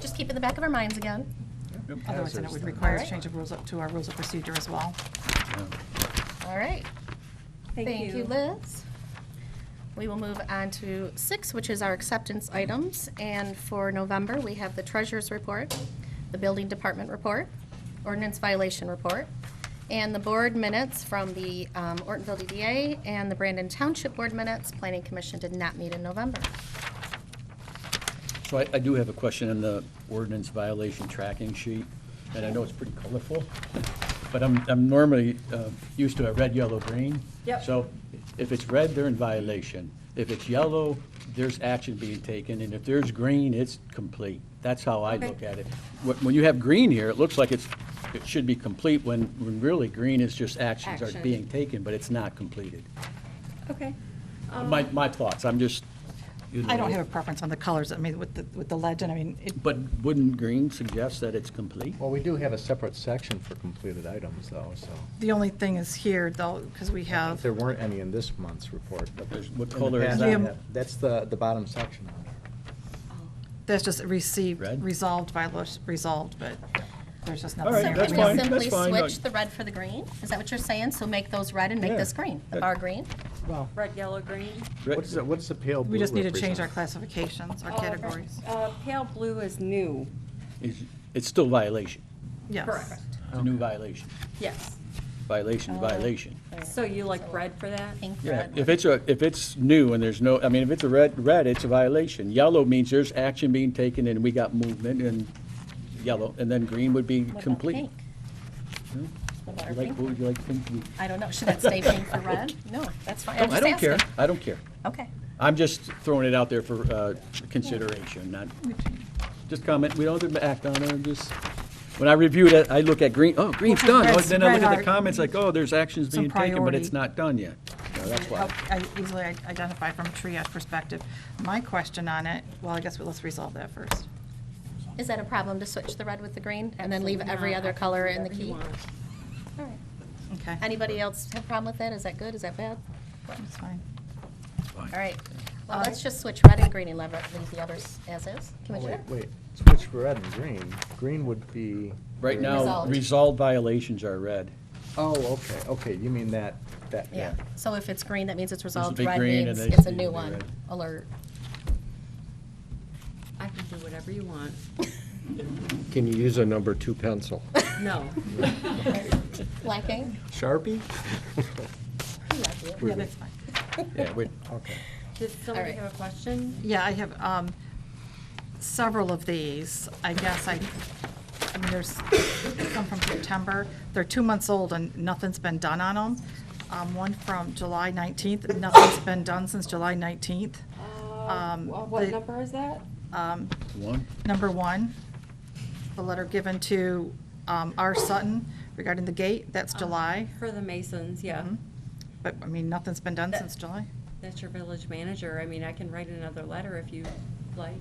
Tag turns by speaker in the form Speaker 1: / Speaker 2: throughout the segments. Speaker 1: just keep in the back of our minds again.
Speaker 2: Otherwise, then it would
Speaker 1: All
Speaker 2: require a
Speaker 1: right.
Speaker 2: change of rules up to our rules of procedure as well.
Speaker 1: All right.
Speaker 3: Thank you.
Speaker 1: Liz. We will move on to six, which is our acceptance items. And for November, we have the treasurer's report, the building department report, ordinance violation report, and the board minutes from the um, Ortonville DDA and the Brandon Township Board minutes. Planning Commission did not meet in November.
Speaker 4: So I, I do have a question on the ordinance violation tracking sheet, and I know it's pretty colorful, but I'm, I'm normally uh, used to a red, yellow, green.
Speaker 3: Yep.
Speaker 4: So if it's red, they're in violation. If it's yellow, there's action being taken, and if there's green, it's complete. That's how I
Speaker 3: Okay.
Speaker 4: look at it. When when you have green here, it looks like it's, it should be complete, when, when really, green is just actions are
Speaker 3: Action.
Speaker 4: being taken, but it's not completed.
Speaker 3: Okay.
Speaker 4: My, my thoughts, I'm just. you
Speaker 2: I don't
Speaker 4: know.
Speaker 2: have a preference on the colors, I mean, with the, with the legend, I mean, it,
Speaker 4: But wouldn't green suggest that it's complete?
Speaker 5: Well, we do have a separate section for completed items, though, so.
Speaker 2: the only thing is here, though, because we have,
Speaker 5: There weren't any in this month's report, but there's.
Speaker 4: What
Speaker 5: in the
Speaker 4: color is
Speaker 5: past,
Speaker 2: that?
Speaker 5: yeah, That's the, the bottom section on it.
Speaker 2: that's just received,
Speaker 4: Red?
Speaker 2: resolved by, lo- resolved, but there's just nothing
Speaker 4: All
Speaker 1: So
Speaker 4: right,
Speaker 2: there.
Speaker 4: that's
Speaker 1: can
Speaker 4: fine,
Speaker 1: we simply
Speaker 4: that's fine.
Speaker 1: switch the red for the green? Is that what you're saying? So make those red and make
Speaker 4: Yeah.
Speaker 1: this green, the bar green?
Speaker 5: Well,
Speaker 3: Red, yellow, green.
Speaker 5: what's, the- what's the pale blue
Speaker 2: We just need to change our
Speaker 5: represent?
Speaker 2: classifications, our
Speaker 3: Uh,
Speaker 2: categories.
Speaker 3: uh, Pale blue is new.
Speaker 4: It's- It's still violation.
Speaker 2: Yes.
Speaker 3: Correct.
Speaker 4: It's a new violation.
Speaker 3: Yes.
Speaker 4: Violation,
Speaker 1: Oh,
Speaker 4: is violation.
Speaker 3: So you like red for that?
Speaker 1: Pink,
Speaker 4: Yeah,
Speaker 1: red.
Speaker 4: if it's a, if it's new and there's no, I mean, if it's a red, red, it's a violation. Yellow means there's action being taken and we got movement and yellow, and then green would be
Speaker 1: What about
Speaker 4: complete. Hmm?
Speaker 1: pink? What about our
Speaker 4: You like-
Speaker 1: pink?
Speaker 4: what would you like pink to be?
Speaker 1: I don't know, should that stay pink for red? No, that's fine, I'm
Speaker 4: No, Oh, I
Speaker 1: just
Speaker 4: don't care,
Speaker 1: asking.
Speaker 4: I don't care.
Speaker 1: Okay,
Speaker 4: I'm just throwing it out there for uh, consideration, not, just comment, we don't have to act on it, I'm just, when I reviewed it, I look at green, oh, green's
Speaker 2: Well, 'cause
Speaker 4: done, Oh,
Speaker 2: red's-
Speaker 4: then I look
Speaker 2: red
Speaker 4: at
Speaker 2: are-
Speaker 4: the comments like, oh, there's actions
Speaker 2: Some
Speaker 4: being taken, but it's
Speaker 2: priority.
Speaker 4: not done yet. No, that's why.
Speaker 2: Help- I easily i- identify from a triage perspective. My question on it, well, I guess we- let's resolve that first.
Speaker 1: is that a problem to switch the red with the green and then leave every other color in the key? All right.
Speaker 2: Okay,
Speaker 1: Anybody else have a problem with that? Is that good, is that bad?
Speaker 2: that's fine.
Speaker 1: All right, well,
Speaker 2: Uh,
Speaker 1: let's just switch red and green and leave leave the others as is.
Speaker 5: Oh, Wait,
Speaker 1: Commissioner?
Speaker 5: wait, switch red and green. Green would be.
Speaker 4: Right now,
Speaker 1: Resolved.
Speaker 4: resolved violations are red.
Speaker 5: Oh, okay, okay, you mean that, that,
Speaker 1: Yeah,
Speaker 5: yeah.
Speaker 1: so if it's green, that means it's resolved,
Speaker 4: big
Speaker 1: red
Speaker 4: green
Speaker 1: means
Speaker 4: and they-
Speaker 1: it's a
Speaker 4: they-
Speaker 1: new
Speaker 4: they
Speaker 1: one,
Speaker 4: red.
Speaker 1: alert.
Speaker 3: I can do whatever you want.
Speaker 6: Can you use a number two pencil?
Speaker 3: No.
Speaker 1: Lacking?
Speaker 5: Sharpie?
Speaker 1: We love you.
Speaker 2: Yeah, that's fine.
Speaker 4: Yeah, we-
Speaker 5: Okay.
Speaker 3: Does somebody
Speaker 1: All right.
Speaker 3: have a question?
Speaker 2: Yeah, I have um, several of these. I guess I, I mean, there's some from September. They're two months old and nothing's been done on them. Um, One from July 19th, nothing's been done since July 19th. Um,
Speaker 3: Uh, Wha- What
Speaker 2: the-
Speaker 3: number is that?
Speaker 2: um,
Speaker 4: One,
Speaker 2: Number one, the letter given to um, R. Sutton regarding the gate, that's
Speaker 3: Uh-huh.
Speaker 2: July.
Speaker 3: Um, For the Masons, yeah.
Speaker 1: Mm-hmm.
Speaker 2: Mhm. But, I mean, nothing's been done
Speaker 3: That-
Speaker 2: since July.
Speaker 3: That's your village manager. I mean, I can write another letter if you like.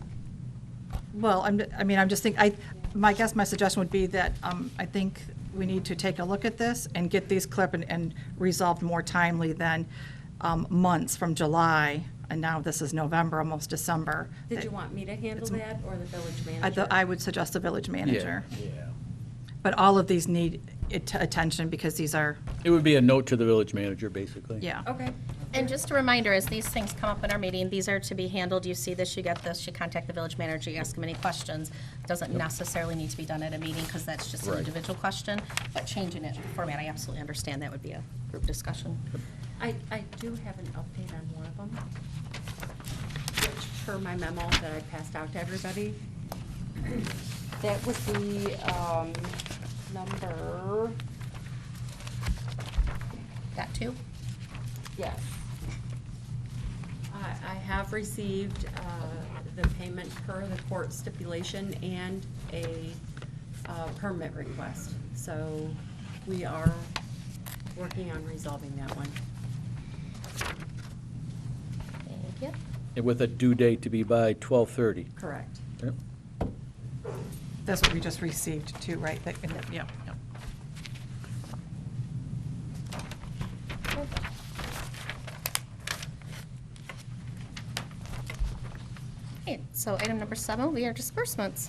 Speaker 2: Well, I'm, I mean, I'm just thinking, I, my guess, my suggestion would be that um, I think we need to take a look at this and get these clipped and- and resolved more timely than um, months from July, and now this is November, almost December.
Speaker 3: Did you want me to handle
Speaker 2: It's-
Speaker 3: that or the village
Speaker 2: I
Speaker 3: manager?
Speaker 2: thought- I would suggest the village manager.
Speaker 4: yeah.
Speaker 2: But all of these need it- attention because these are,
Speaker 4: It would be a note to the village manager, basically.
Speaker 2: yeah.
Speaker 3: Okay.
Speaker 1: And just a reminder, as these things come up in our meeting, these are to be handled, you see this, you get this, you contact the village manager, you ask him any questions. Doesn't necessarily need to be done at a meeting, because that's just an
Speaker 4: Right.
Speaker 1: individual question, but changing it in format, I absolutely understand that would be a group discussion.
Speaker 3: I, I do have an update on one of them, which per my memo that I passed out to everybody, that was the um, number,
Speaker 1: Got two?
Speaker 3: yes. I, I have received uh, the payment per the court stipulation and a uh, permit request. So we are working on resolving that one.
Speaker 1: Thank you.
Speaker 4: And With a due date to be by 12:30.
Speaker 3: Correct.
Speaker 4: Yep.
Speaker 2: That's what we just received too, right? That- Yeah, yeah.
Speaker 1: Okay, so item number seven, we are disbursements.